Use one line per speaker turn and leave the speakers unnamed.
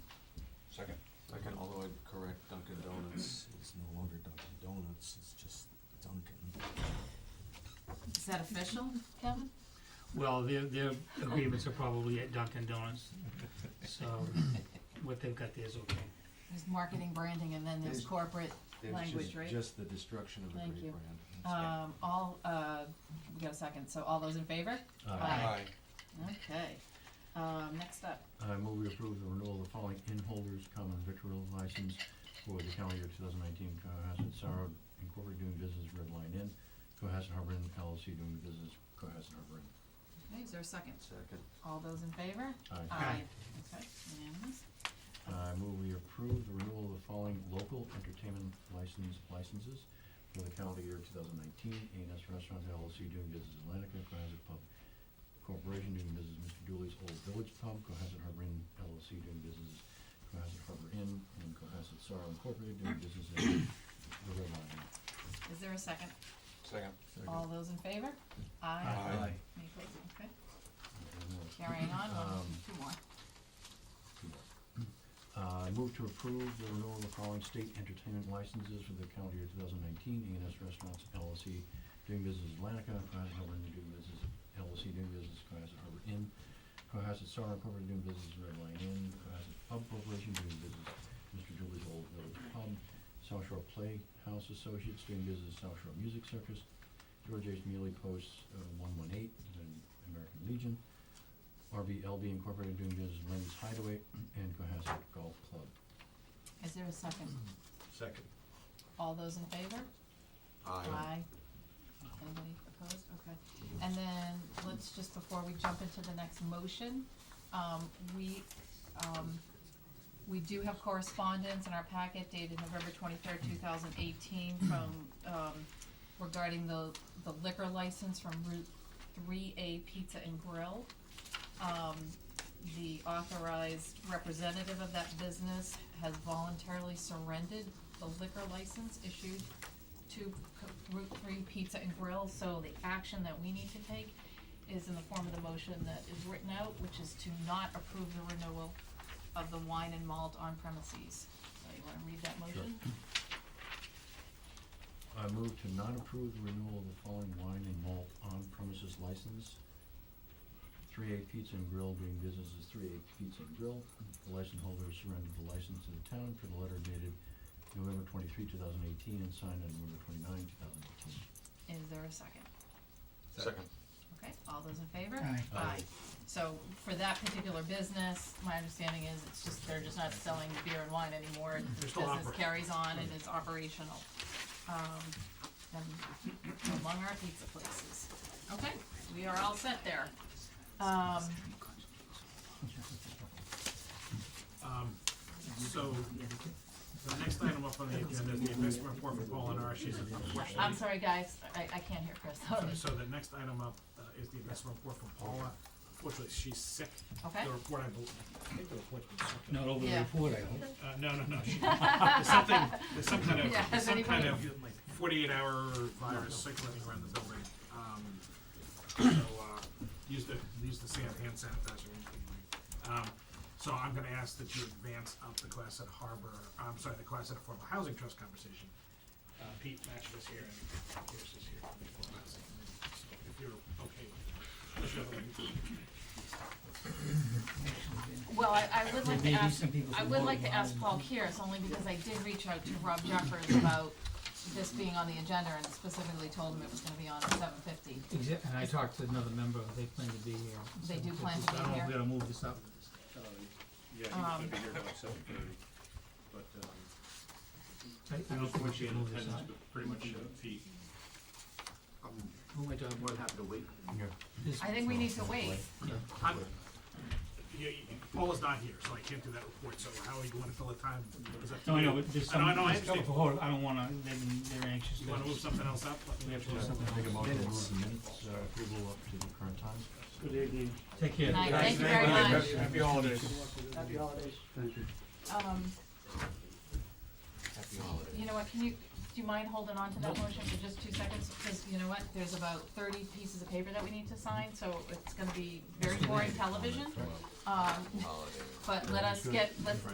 else is just Duncan.
Is that official, Kevin?
Well, their, their agreements are probably at Dunkin' Donuts, so what they've got there is okay.
There's marketing, branding, and then there's
There's-
corporate,
There's
Language,
just-
right?
Just the destruction of a
Thank
great
you.
brand.
um, all, uh, we got a second, so all those in favor? Aye. Okay, um, next up,
I Uh, move we approve the renewal of the following inn holders common victual license for the calendar year two thousand nineteen, Cohasset Sorrow Incorporated doing business Red Line Inn, Cohasset Harbor Inn LLC doing business Cohasset Harbor Inn.
Okay, is there a second?
Second,
All those in favor?
Aye.
Aye. Okay, unanimous.
I Uh, move we approve the renewal of the following local entertainment license licenses for the calendar year two thousand nineteen, A and S Restaurant LLC doing business Atlantica, Cohasset Pub Corporation doing business Mr. Dooley's Old Village Pub, Cohasset Harbor Inn LLC doing business Cohasset Harbor Inn, and Cohasset Sorrow Incorporated doing business as the Red Lion.
Is there a second?
Second.
All those in favor? Aye. Any opposed? Okay, carrying on, one,
Um,
two more.
Uh, I move to approve the renewal of the following state entertainment licenses for the calendar year two thousand nineteen, A and S Restaurants LLC, doing business as Atlantica, Cohasset Harbor Inn, doing business, LLC, doing business Cohasset Harbor Inn, Cohasset Star Incorporated, doing business as Red Lion Inn, Cohasset Pub Corporation, doing business Mr. Dooley's Old Village Pub, South Shore Playhouse Associates, doing business South Shore Music Circus, George H. Mealy Post, uh, one one eight, American Legion, RBLB Incorporated, doing business as Lenny's Hideaway, and Cohasset Golf Club.
Is there a second?
second.
All those in favor? Aye. Anybody opposed? Okay. And then, let's just, before we jump into the next motion, um, we, um, we do have correspondence in our packet dated November twenty-third, two thousand eighteen, from, um, regarding the, the liquor license from Route Three A Pizza and Grill. Um, the authorized representative of that business has voluntarily surrendered the liquor license issued to Co- Route Three Pizza and Grill, so the action that we need to take is in the form of the motion that is written out, which is to not approve the renewal of the wine and malt on premises. So you wanna read that motion?
I move to not approve the renewal of the following wine and malt on premises license. Three A Pizza and Grill doing business as Three A Pizza and Grill. The license holder surrendered the license to the town for the letter dated November twenty-three, two thousand eighteen, and signed on November twenty-nine, two thousand eighteen.
Is there a second?
Second.
Okay, all those in favor?
Aye.
Aye.
So for that particular business, my understanding is it's just, they're just not selling beer and wine anymore. and The
They're still
business
operating.
carries on and is operational. Um, and among our pizza places. Okay, we are all set there. Um,
Um, so, the next item up on the agenda is the investment report for Paul and R. She's unfortunately.
I'm sorry, guys, I, I can't hear Chris, sorry.
So the next item up uh, is the investment report from Paula. Unfortunately, she's sick.
Okay.
The report, I believe, I think the report's been sent.
Not over the
Yeah.
report, I hope.
Uh, no, no, no, she, there's something, there's some kind
Yeah,
of, there's
has
some kind of
anybody-
forty-eight hour virus circulating around the building. Um, so, uh, use the, use the san- hand sanitizer. Um, so I'm gonna ask that you advance up the class at Harbor, I'm sorry, the class at Affordable Housing Trust conversation. Uh, Pete Matchett is here and Pierce is here from the Affordable Housing Committee, so if you're okay with it. Unless you have a-
Well, I, I would
There
like to
may be
ask,
some people
I
who
would
vote
like to
no.
ask Paul Kears, only because I did reach out to Rob Jeffers about this being on the agenda and specifically told him it was gonna be on at seven fifty.
Exa- And I talked to another member, they plan to be here.
They
so
do
if
plan
we-
to be
I don't know
here.
if we're gonna move this up.
Yeah, he was
Um,
gonna be here about seven thirty, but, um,
I I don't think we should move this up.
attendance was pretty much at peak.
Who am I talking about?
happy to wait.
This-
I think we need to wait.
yeah.
I'm, you, you, Paul is not here, so I can't do that report, so how are you gonna fill the time? Is that-
No, I know, but there's
I
some,
know, I know, I
there's a couple
understand.
for hold, I don't wanna, they're, they're anxious.
You wanna move something else up? Let me-
We have to do something.
Make a
else.
motion to move the minutes, uh, approval up to the current time.
Good evening. Take care.
Night, thank you very much.
Happy holidays.
Um,
Happy holidays.
you know what, can you, do you mind holding on to that motion for just two seconds? Because you know what, there's about thirty pieces of paper that we need to sign, so it's gonna be very boring television. Um, but let us get, let's